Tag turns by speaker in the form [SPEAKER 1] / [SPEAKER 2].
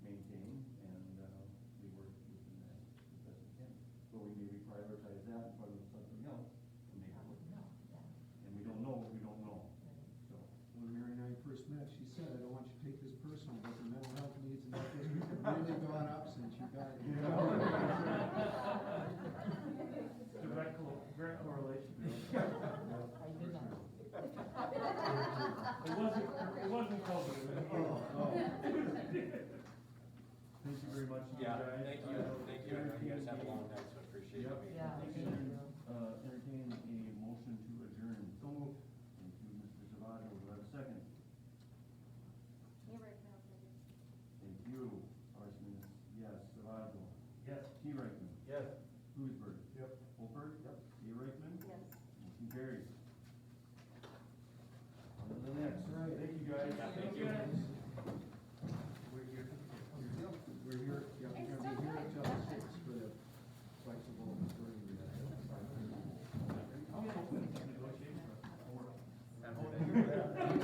[SPEAKER 1] uh, back. you know?
[SPEAKER 2] Direct cor- direct correlation.
[SPEAKER 3] I did not.
[SPEAKER 2] It wasn't, it wasn't COVID.
[SPEAKER 1] Thank you very much. you
[SPEAKER 4] Yeah,
[SPEAKER 1] guys.
[SPEAKER 4] thank you,
[SPEAKER 1] Uh,
[SPEAKER 4] thank you, I know you guys have a long night, so I appreciate
[SPEAKER 1] Yep.
[SPEAKER 4] you being
[SPEAKER 3] Yeah.
[SPEAKER 4] here.
[SPEAKER 1] Thank you. Uh, entertain a motion to adjourn. So moved. Thank you, Mr. Savato, do I have a second? Thank you, Parsons, yes, Savato.
[SPEAKER 2] Yes.
[SPEAKER 1] T. Reichman.
[SPEAKER 4] Yes.
[SPEAKER 1] Lewisburg.
[SPEAKER 4] Yep.
[SPEAKER 1] Wolpert. Yep. A. Reichman.
[SPEAKER 5] Yes.
[SPEAKER 1] Motion carries.